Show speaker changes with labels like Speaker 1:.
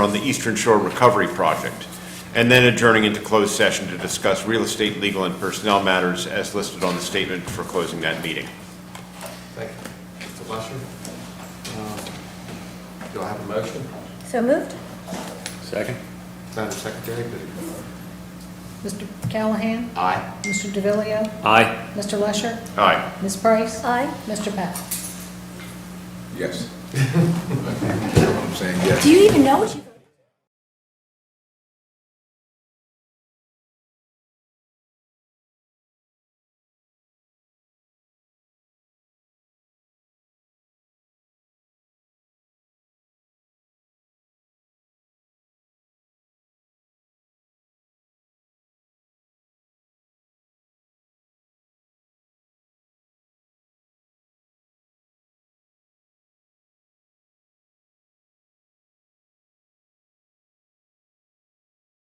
Speaker 1: on the Eastern Shore Recovery Project, and then adjourning into closed session to discuss real estate, legal, and personnel matters as listed on the statement for closing that meeting.
Speaker 2: Thank you. Mr. Lusher? Um, Do I have a motion?
Speaker 3: So moved?
Speaker 4: Second?
Speaker 2: Madam Secretary, please.
Speaker 5: Mr. Callahan?
Speaker 2: Aye.
Speaker 5: Mr. DeVillio,
Speaker 4: Aye.
Speaker 5: Mr. Lusher?
Speaker 1: Aye.
Speaker 5: Ms. Price?
Speaker 3: Aye.
Speaker 5: Mr. Powell?
Speaker 6: Yes. I'm saying yes.
Speaker 3: Do you even know what you?